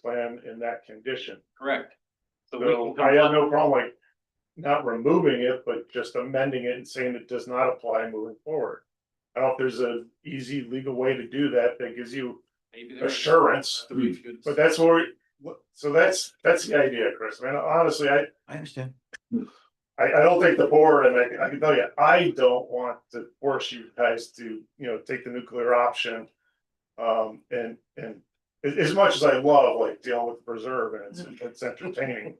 plan in that condition. correct? So we So can I have comply, no problem like not removing it, but just amending it and saying it does not apply moving forward. I don't know if there's an easy legal way to do that that gives you, maybe there is. assurance. but that's where, we- what- so that's, that's the idea, Chris. Man, honestly, I, I understand. I, I don't think the board, and I, I can tell you, I don't want to force you guys to, you know, take the nuclear option. Um, and, and as, as much as I love like dealing with preserve and it's, Mm-hmm. it's entertaining.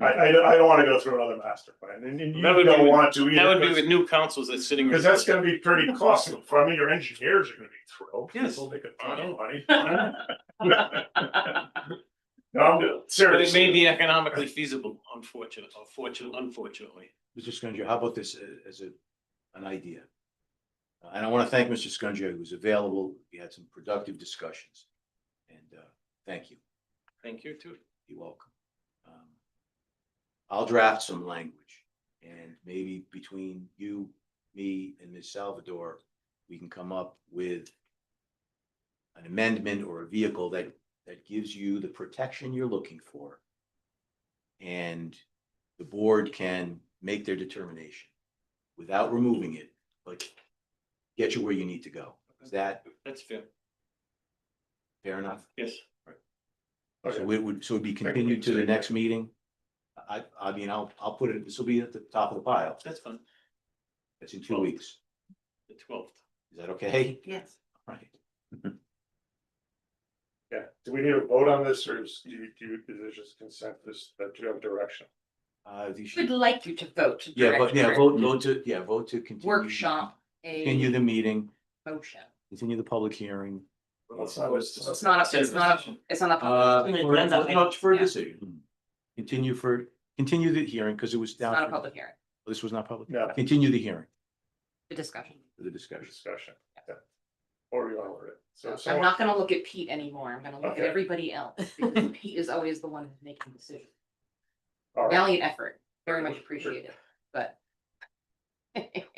I, I, don't- I don't wanna go through another master plan and, and you That would be don't with- want to That would be either. with new councils that's sitting. Cause that's gonna be pretty costly. I mean, your engineers are gonna be thrilled. Yes. They'll make a ton of money. No, I'm But it may serious. be economically feasible, unfortunately, unfortunately, unfortunately. Mr. Scungio, how about this a- as a, an idea? Uh, And I want to thank Mr. Scungio, who was available. We had some productive discussions. And, uh, thank you. Thank you too. You're welcome. Um, I'll draft some language and maybe between you, me and Ms. Salvador, we can come up with an amendment or a vehicle that, that gives you the protection you're looking for. And the board can make their determination without removing it, but get you where you need to go. Is that That's fair. fair enough? Yes. Okay. So it would, so it'd be continued to the next meeting? I, I mean, I'll, I'll put it, this will be at the top of the pile. That's fine. That's in two weeks. The twelfth. Is that okay? Yes. All Right. Yeah, do we need a vote on this or is, do you, do you, is there just consensus that you have direction? Uh, you We'd should, like you to vote to yeah, direct but yeah, your vote, vote to, yeah, vote to continue. workshop Continue a the meeting, motion. continue the public hearing. Let's not- let's It's not- not, a. it's not, a. it's not. Uh, a. for, no, it's for a Yeah. decision. Hmm. Continue for, continue the hearing because it was It's not a down. for- public hearing, This was not public. No. Continue the hearing, a discussion. for the discussion. discussion. yeah. Or you order it. So if I'm someone, not gonna look at Pete anymore. I'm gonna look at Okay. everybody else. because Pete is always the one who's making decisions. all right, Valiant effort, very much appreciated, but.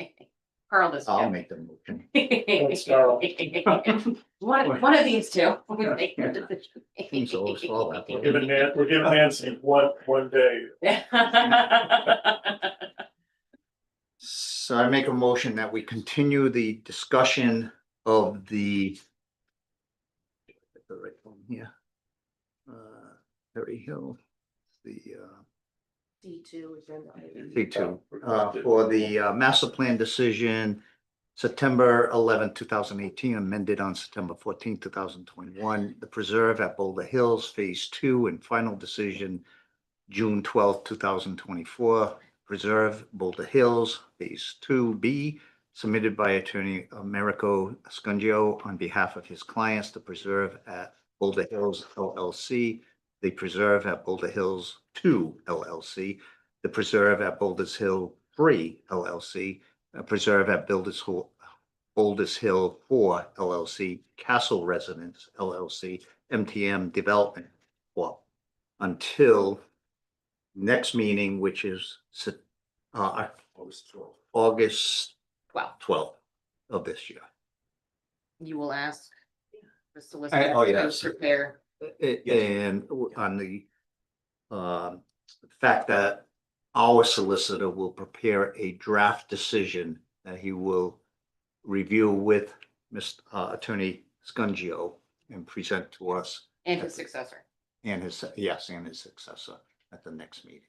Carl does. I'll make the motion. Thanks, Carl. One, one of these two. will make your decision. Seems so slow, that we're one. giving Nan, we're giving Nancy one, one day. So I make a motion that we continue the discussion of the. The right one here. Uh, Perry Hill, the uh, D two agenda item. C uh, two, uh, for the uh, master plan decision. September eleventh, two thousand eighteen, amended on September fourteenth, two thousand twenty-one, the preserve at Boulder Hills, phase two and final decision. June twelfth, two thousand twenty-four, Preserve Boulder Hills, Phase Two B, submitted by Attorney Americo Scungio on behalf of his clients, the Preserve at Boulder Hills LLC, the Preserve at Boulder Hills Two LLC, the Preserve at Boulder's Hill Three LLC, a uh, Preserve at Builders Hall, Boulders Hill Four LLC, Castle Residence LLC, MTM Development Corp. Until next meeting, which is Sep- uh, August Well, twelfth of this year. you will ask the I- oh, solicitor to yes. prepare. A- Yes. And w- on the um, fact that our solicitor will prepare a draft decision that he will review with Mr. uh, Attorney Scungio and present to us And his successor. and his, yes, and his successor at the next meeting.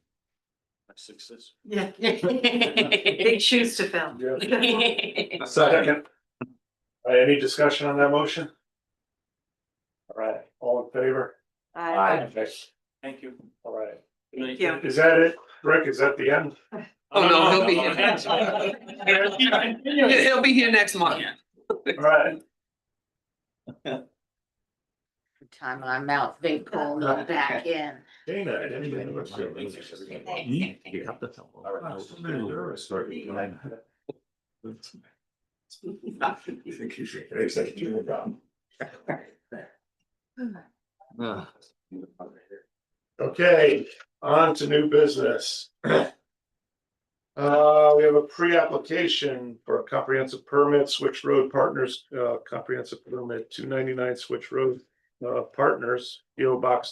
Success. Yeah, Big big shoes to fill. Yeah. Yes. Second. All right, any discussion on that motion? All right, all in favor? I- Thank you. All right, Good night. Yeah. is that it? Rick, is that the end? Oh, no, he'll be He- He'll be here next month. All right, Time I'm out, they pull them back in. Dana, I didn't even know. You have to tell them. Uh, Okay, on to new business. Uh, we have a pre-application for a comprehensive permit, Switch Road Partners, uh, comprehensive permit, two ninety-nine Switch Road, uh, Partners, PO Box